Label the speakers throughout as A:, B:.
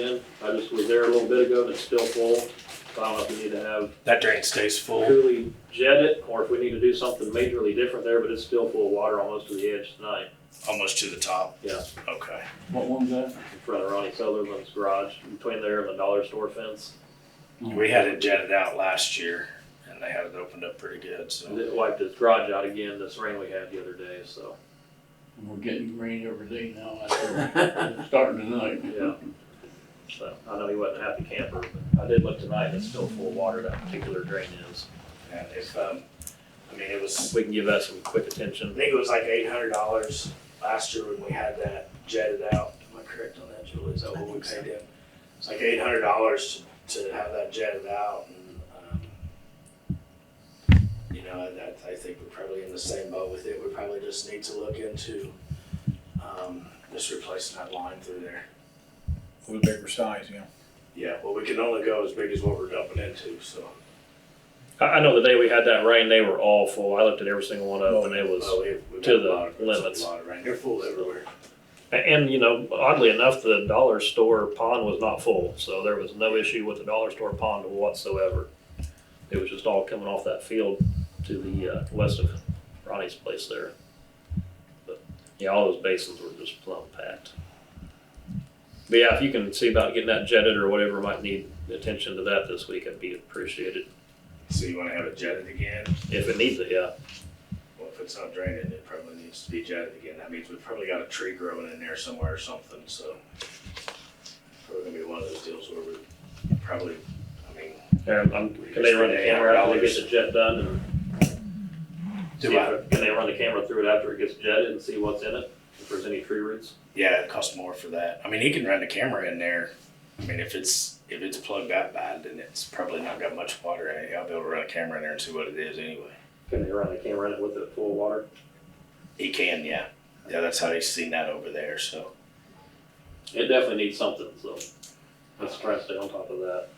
A: just was there a little bit ago and it's still full. So I don't know if we need to have
B: That drain stays full.
A: truly jet it or if we need to do something majorly different there, but it's still full of water almost to the edge tonight
B: Almost to the top?
A: Yeah.
B: Okay.
C: What one's that?
A: in front of Ronnie Sutherland's garage, between there and the dollar store fence.
B: We had it jetted out last year and they had it opened up pretty good,
A: And
B: so.
A: It wiped his garage out again this rain we had the other day, so,
C: Oh, We're getting rain every day now. I think. It's Starting tonight.
A: yeah. So I know he wasn't a happy camper, but I did look tonight and it's still full of water, that particular drain is.
B: And if, um, I mean, it was,
A: We can give that some quick
B: I
A: attention.
B: think it was like eight hundred dollars last year when we had that jetted out. Am I correct on that, Julie? Is that what we paid him? It's like eight hundred dollars to have that jetted out and, um, you know, that, I think we're probably in the same boat with it. We probably just need to look into, um, just replacing that line through there.
D: with a bigger size, you know.
B: Yeah, well, we can only go as big as what we're dumping into, so.
A: I, I know the day we had that rain, they were all full. I looked at every single one of them and it was.
B: Well, we- we've
A: to
B: got a
A: the
B: lot of-
A: limits.
B: A lot of rain, they're full everywhere.
A: And, you know, oddly enough, the dollar store pond was not full, so there was no issue with the dollar store pond whatsoever. It was just all coming off that field to the uh, west of Ronnie's place there. But, yeah, all those basins were just plumb packed. But yeah, if you can see about getting that jetted or whatever might need attention to that this week, I'd be appreciated.
B: So you wanna have it jetted again?
A: If it needs it, yeah.
B: Well, if it's not draining, it probably needs to be jetted again. That means we've probably got a tree growing in there somewhere or something, so. Probably gonna be one of those deals where we probably, I mean.
A: Yeah, I'm- Can they run the camera out and get the jet done and See if- Can they run the camera through it after it gets jetted and see what's in it? If there's any tree roots?
B: Yeah, it costs more for that. I mean, he can run the camera in there. I mean, if it's, if it's plugged out bad, then it's probably not got much water in it. I'll be able to run a camera in there and see what it is anyway.
A: Can they run the camera in it with it full of water?
B: He can, yeah. Yeah, that's how he's seen that over there, so.
A: It definitely needs something, so let's try to stay on top of that.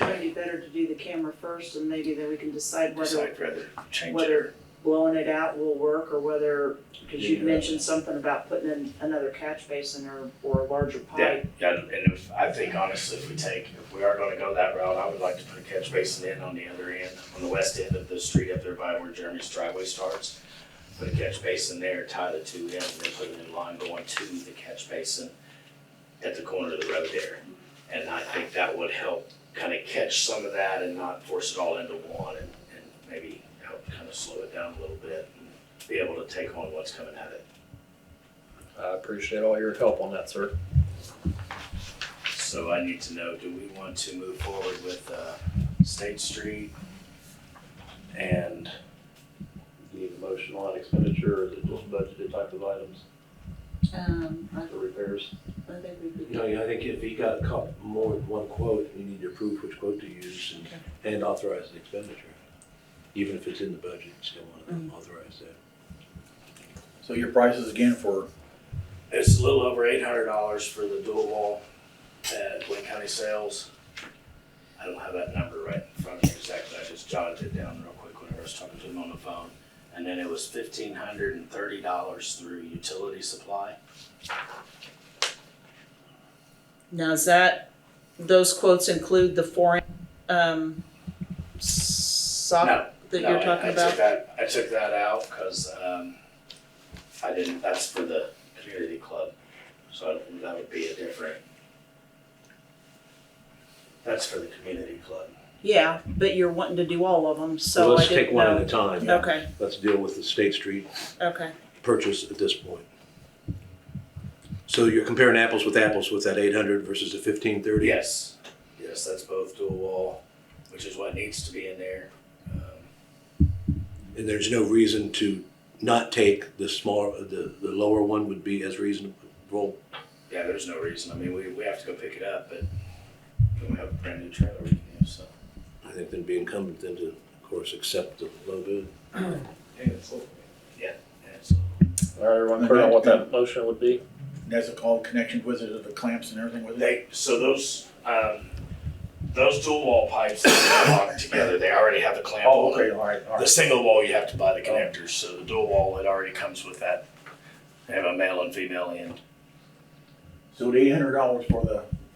E: Might be better to do the camera first and maybe then we can decide whether
B: Decide whether change it
E: whether-
B: or.
E: blowing it out will work or whether, because you
A: Yeah.
E: mentioned something about putting in another catch basin or, or a larger
B: Yeah,
E: pipe.
B: yeah, and if, I think honestly, if we take, if we are gonna go that route, I would like to put a catch basin in on the other end, on the west end of the street up there by where Jeremy's driveway starts. Put a catch basin there, tie the two in, and then put a new line going to the catch basin at the corner of the road there. And I think that would help kind of catch some of that and not force it all into one and, and maybe help kind of slow it down a little bit and be able to take on what's coming at it.
A: I appreciate all your help on that, sir.
B: So I need to know, do we want to move forward with uh, State Street? And
A: Need a motion on expenditure, or is it just budgeted type of items
E: Um, I,
A: for repairs?
E: I think we could.
F: No, yeah, I think if you got a couple, more than one quote, you need to approve which quote to use and- and authorize the expenditure. Even if it's in the budget, you still want
G: Mm.
F: to authorize that.
D: So your prices again for,
B: it's a little over eight hundred dollars for the dual wall at Wayne County Sales. I don't have that number right in front of me exactly, I just jotted it down real quick whenever I was talking to him on the phone. And then it was fifteen hundred and thirty dollars through utility supply.
G: Now, is that, those quotes include the foreign, um, sock
B: No,
G: that
B: No,
G: you're
B: I-
G: talking
B: I
G: about?
B: took that, I took that out because um, I didn't, that's for the community club, so I don't- that would be a different. That's for the community club.
G: Yeah, but you're wanting to do all of them,
F: So
G: so I
F: let's
G: didn't
F: take one at
G: know.
F: a time.
G: Okay,
F: Let's deal with the State Street
G: okay.
F: purchase at this point. So you're comparing apples with apples with that eight hundred versus the fifteen thirty?
B: Yes, yes, that's both dual wall, which is what needs to be in there. Um,
F: And there's no reason to not take the smaller, the, the lower one would be as reasonable.
B: Yeah, there's no reason, I mean, we, we have to go pick it up, but we have a brand new trailer, you know, so.
F: I think then be incumbent then to, of course, accept the low bid.
B: Yeah, yeah, so.
A: All right, everyone clear on what that motion would be?
D: that's all connections with it, the clamps and everything with it?
B: They, so those, um, those dual wall pipes that are locked together, they already have the clamp
D: Oh,
B: on
D: okay,
B: it.
D: all right, all
B: The
D: right.
B: single wall, you have to buy the connectors, so the dual wall, it already comes with that. They have a male and female end.
D: So the eight hundred dollars for the